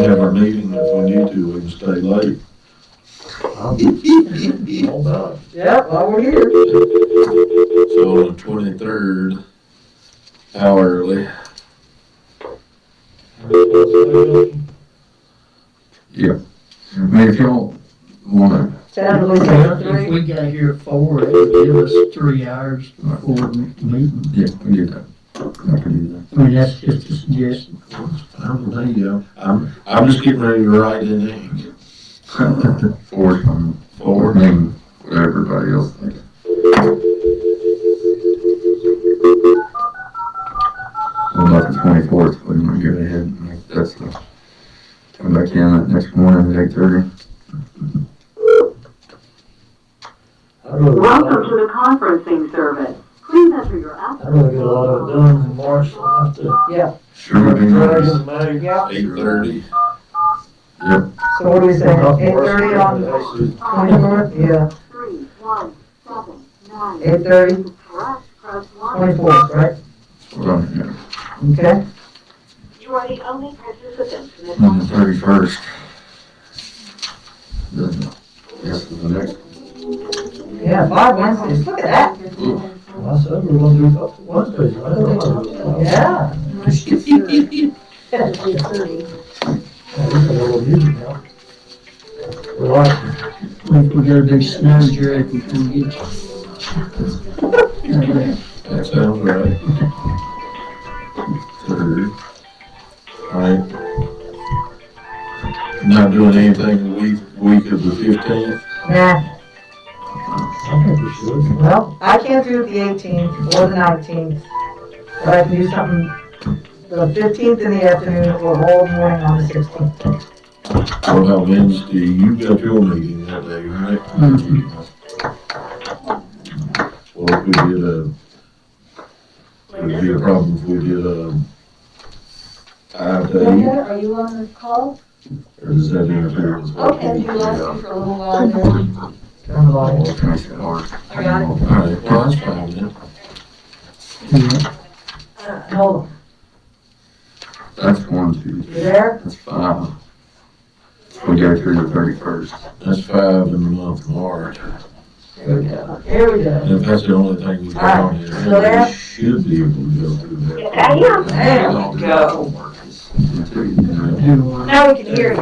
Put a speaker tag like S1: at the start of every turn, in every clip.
S1: have our meeting, if we need to, we can stay late.
S2: Hold on.
S3: Yeah, while we're here.
S1: So the twenty-third, hourly. Yeah. I mean, if y'all wanna,
S3: Time to leave at
S2: If
S3: three.
S2: we got here at four, it would give us three hours before the meeting.
S1: yeah, we do that. I can do that.
S2: I mean, that's just a suggestion.
S1: I'm, there you go. I'm, I'm just getting ready to write in ink.
S4: Or, um, or
S1: Forward.
S4: name what everybody else thinks. Well, about the twenty-fourth, we might go ahead and make that stuff. Come back in that next morning at eight thirty.
S2: I'd rather get a
S5: Welcome
S2: lot-
S5: to the conferencing service. Please enter your app.
S2: I'd rather get a lot of it done in March than have to
S4: Sure would be
S2: drag it
S4: nice.
S2: in May.
S3: Yeah,
S1: Eight thirty.
S3: so what do we say,
S2: Not
S3: eight
S2: worse
S3: thirty
S2: than
S3: on
S2: that.
S3: twenty-fourth? Yeah,
S5: Three, one, seven, nine.
S3: eight thirty,
S5: Correct, press one.
S3: twenty-fourth, right?
S4: Hold on, yeah.
S3: Okay,
S5: You are the only participant in this.
S4: On the thirty-first. Yes, the next.
S3: yeah, five Wednesdays, look at
S2: I said we were gonna do it up to Wednesdays, I
S3: that, yeah.
S2: Relax. If we gotta do snow, Jerry, we can get you.
S1: That sounds right. Third. Alright. Not doing anything the week, week of the fifteenth?
S3: Nah,
S2: I think we should.
S3: well, I can't do the eighteenth or the nineteenth, but I can do something the fifteenth in the afternoon or all morning on the sixteenth.
S1: What about Wednesday? You got your meeting that day, right? Mm-hmm. Well, if we did a, it'd be a problem if we did a five day,
S6: Brenda, are you on the call?
S1: or does that interfere with? what
S6: Okay,
S1: we-
S6: you lost me for a little while there.
S3: Turn the light.
S4: All kinds of hours.
S6: I got it.
S1: Alright, well, that's fine then.
S3: Hold on,
S4: That's one, two,
S3: you there?
S4: that's five. We go through the thirty-first.
S1: That's five in the month of March.
S3: Here we go, here we go.
S1: And if that's the only thing we got on here,
S3: Still there?
S1: we should be able to go through that.
S5: I am.
S3: There we go. Now we can hear you.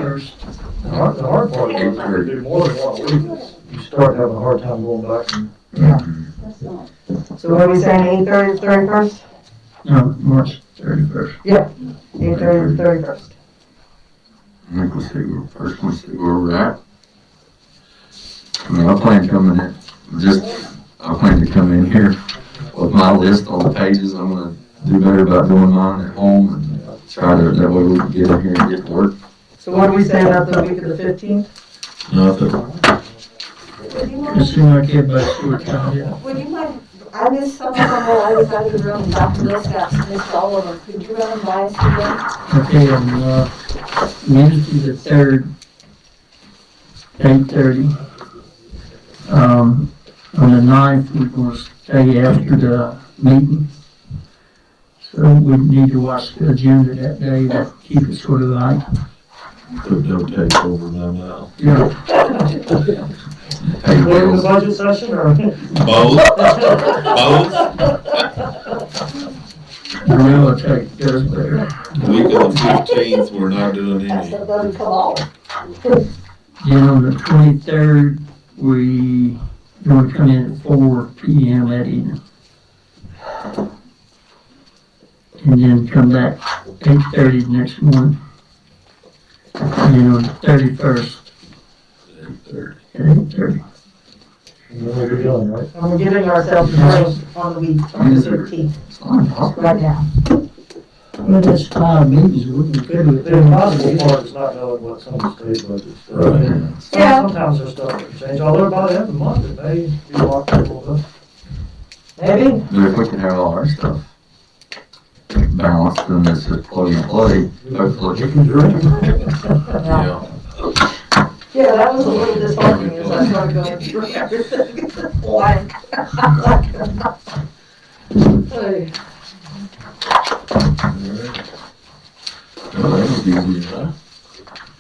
S2: The hard, the hard part is, if we do more than one week, is you start having a hard time going back and.
S4: Mm-hmm.
S6: That's not.
S3: So what are we saying, eight thirty to thirty-first?
S2: No, March.
S4: Thirty-first.
S3: Eight thirty to thirty-first.
S4: I think we'll see where, first we'll see where we're at. I mean, I plan coming in, just, I plan to come in here with my list, all the pages, I'm gonna do better about doing mine at home and try to, that way we can get in here and get to work.
S3: So what do we say about the week of the fifteenth?
S1: Nothing.
S6: Would you
S2: It
S6: mind,
S2: seems like everybody's short time, yeah.
S6: would you mind, I missed some of them while I was out of the room, and Dr. Bill's got missed all of them. Could you run them by us again?
S2: Okay, on, uh, Wednesday the third, eight thirty. Um, on the ninth, we're gonna stay after the meeting. So we need to watch the agenda that day, to keep it sort of light.
S1: Put no tape over my mouth.
S2: Yeah.
S4: Hey, Bill,
S2: budget session or?
S1: Both? Both?
S2: Gorilla tape does better.
S1: Week of the fifteenth, we're not doing
S6: That
S1: any.
S6: stuff doesn't come off.
S2: Then on the twenty-third, we gonna come in at four P M that evening. And then come back eight thirty next morning. And then on the thirty-first at eight thirty.
S3: And we're giving ourselves a break on the week, on the fifteenth,
S4: it's not possible.
S3: right now.
S2: Well, that's five meetings, we can fit it.
S7: The impossible part is not knowing what some of the state budgets.
S1: Right.
S3: Yeah.
S7: Sometimes there's stuff that change, although by the end of the month, it may be locked up a little bit.
S3: Maybe,
S4: But if we can have all our stuff balanced, then it's just plug and play, hopefully.
S3: yeah,
S1: Yeah.
S3: yeah, that was a little disheartening as I started going through everything. Blank. Hey,
S1: Well, that was easy enough.